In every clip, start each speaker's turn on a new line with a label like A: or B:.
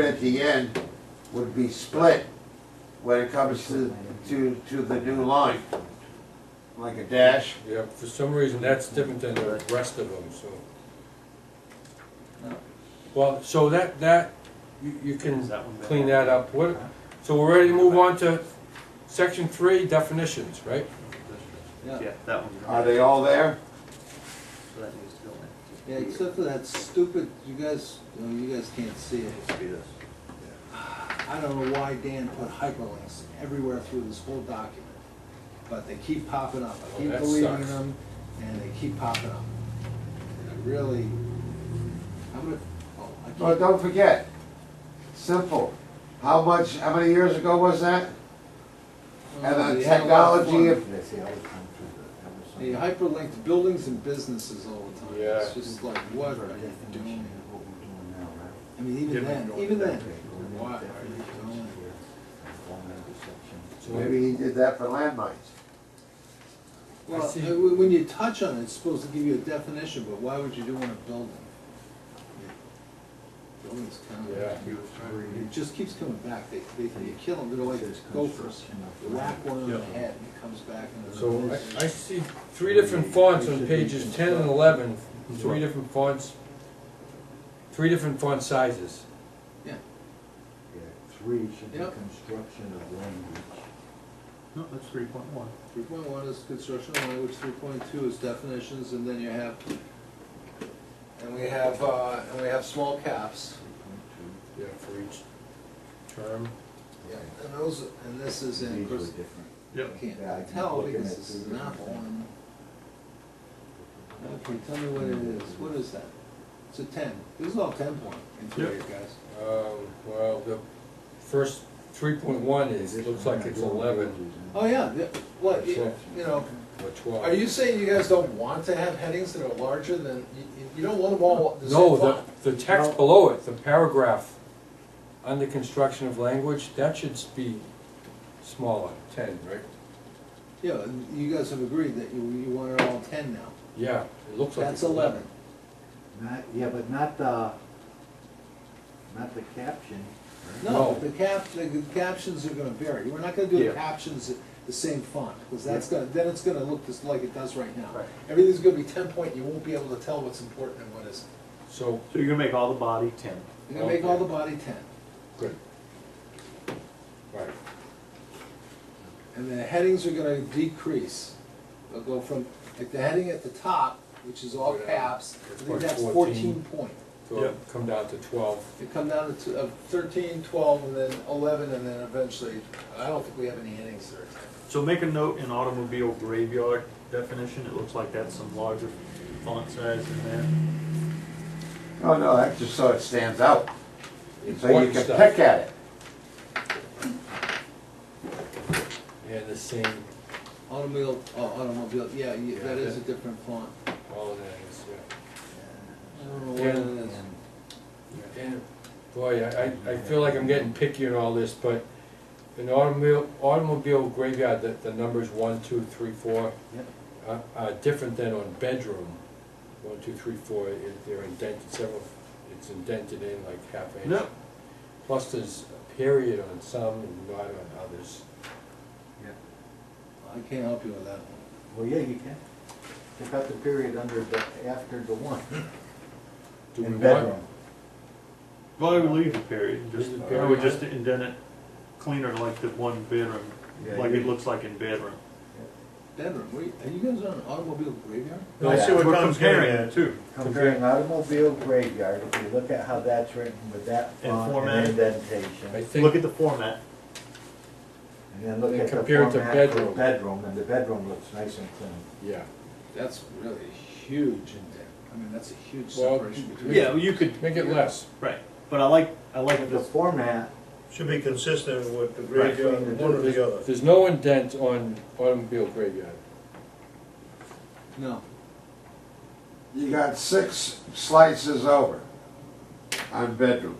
A: at the end would be split when it comes to, to, to the new line. Like a dash,
B: Yeah, for some reason, that's different than the rest of them, so. Well, so that, that, you, you can clean that up, what, so we're ready to move on to section three, definitions, right?
C: Yeah,
D: Yeah,
C: that one,
A: are they all there?
C: so that needs to go in.
D: Yeah, except for that stupid, you guys, no, you guys can't see it. I don't know why Dan put hyperlinks everywhere through this whole document, but they keep popping up.
B: Oh,
D: I keep
B: that
D: deleting
B: sucks.
D: them, and they keep popping up. And I really, I'm gonna, oh, I
A: Well,
D: can't,
A: don't forget, simple, how much, how many years ago was that?
D: Oh,
A: And the
D: they had a lot of
A: technology
D: fun.
A: of,
D: They hyperlinked buildings and businesses all the time. It's
B: Yeah.
D: just like, what are you doing? I mean, even
C: Different
D: then,
C: going
D: even then,
C: back.
D: why are you doing it?
B: So
A: maybe he did that for landmines.
D: Well,
B: I see.
D: uh, when when you touch on it, it's supposed to give you a definition, but why would you do it in a building? Buildings kind
B: Yeah.
D: of, it just keeps coming back, they, they, you kill them, they're like gophers. You Whack one on the head and it comes back and.
B: So I, I see three different fonts on pages ten and eleven, three different fonts, three different font sizes.
D: Yeah,
E: Three should be
D: Yep.
E: construction of language.
C: No, that's three point one.
D: three point one is construction of language, three point two is definitions, and then you have, and we have, uh, and we have small caps.
B: Yeah, for each term.
D: Yeah, and those, and this is
E: These
D: in,
E: were
D: of course,
E: different.
D: I can't tell because this is not one. Okay, tell me what it is, what is that? It's a ten, this is all ten point interior, guys.
B: Um, well, the first three point one is, looks like it's eleven
D: Oh, yeah, yeah, what, you you know,
B: or twelve.
D: are you saying you guys don't want to have headings that are larger than, you, you- you don't want them all the same
B: No,
D: font?
B: the, the text below it, the paragraph, under construction of language, that should be smaller, ten, right?
D: Yeah, and you guys have agreed that you, you want it all ten now,
B: Yeah, it looks like.
D: that's
B: it's
D: eleven.
E: Not, yeah, but not the, not the caption. right?
B: No.
D: No, the cap, the captions are gonna vary, we're not gonna do the
C: Yeah.
D: captions the same font, because that's gonna, then it's gonna look just like it does right now.
C: Right.
D: Everything's gonna be ten point, you won't be able to tell what's important and what isn't.
B: So,
C: So you're gonna make all the body ten.
D: You're gonna make all the body ten.
B: good. Right,
D: And the headings are gonna decrease. They'll go from, like the heading at the top, which is all
B: Yeah.
D: caps, I
B: It's
D: think
B: like
D: that's
B: 14.
D: fourteen point.
B: so it'll come down to twelve.
D: They come down to uh, thirteen, twelve, and then eleven, and then eventually, I don't think we have any headings there.
C: So make a note in automobile graveyard definition, it looks like that's some larger font size in there.
A: Oh, no, that's just so it stands out, so you
B: Important
A: can
B: stuff.
A: pick at it.
B: And the same,
D: Automobile, oh, automobile, yeah, you-
B: Yeah,
D: that is a
B: that-
D: different font.
B: all of that is, yeah.
D: I don't know
B: Yeah.
D: what it is.
B: And, boy, I, I I feel like I'm getting picky and all this, but an automobile, automobile graveyard, the, the numbers one, two, three, four,
E: Yep.
B: are, are different than on bedroom. One, two, three, four, it- they're indented, several, it's indented in like half inch.
C: No.
B: Plus there's a period on some and not on others.
D: I can't help you with that one.
E: Well, yeah, you can. Take out the period under the, after the one.
B: Do we
E: In
B: want,
E: bedroom.
C: Well, I would leave the period, just,
B: Leave the
C: I would
B: period.
C: just indent it cleaner like the one bedroom,
E: Yeah,
C: like
E: you-
C: it looks like in bedroom.
D: Bedroom, wait, are you guys on an automobile graveyard?
E: No, I see what
C: We're
F: Tom's getting
C: comparing
F: at.
C: the two.
E: Comparing automobile graveyard, if you look at how that's written with that
C: And
E: font
C: format.
E: and indentation.
B: I think.
C: Look at the format.
E: And then look
B: And
E: at the
B: compare it
E: format
B: to
E: for
B: bedroom.
E: bedroom, and the bedroom looks nice and clean.
B: Yeah.
D: That's really huge in there. I mean, that's a huge
B: Well,
D: separation between.
C: Yeah, you could,
B: Make it less.
C: right, but I like, I like
E: The
C: this
E: format,
F: Should be consistent with the
C: Right.
F: graveyard, one or the other.
B: There's no indent on automobile graveyard.
D: No,
A: You got six slices over on bedroom.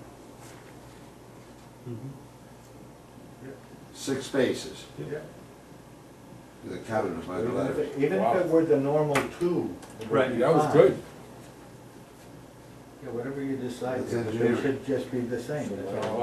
A: Six spaces.
C: Yeah.
A: They counted them by the
E: even if
A: letters.
E: it- even if
B: Wow.
E: it were the normal two. it would
C: Right,
E: be
B: That was
E: fine.
B: good.
E: Yeah, whatever you decide,
A: It's
E: it
A: engineering.
E: should just be the same, that's all.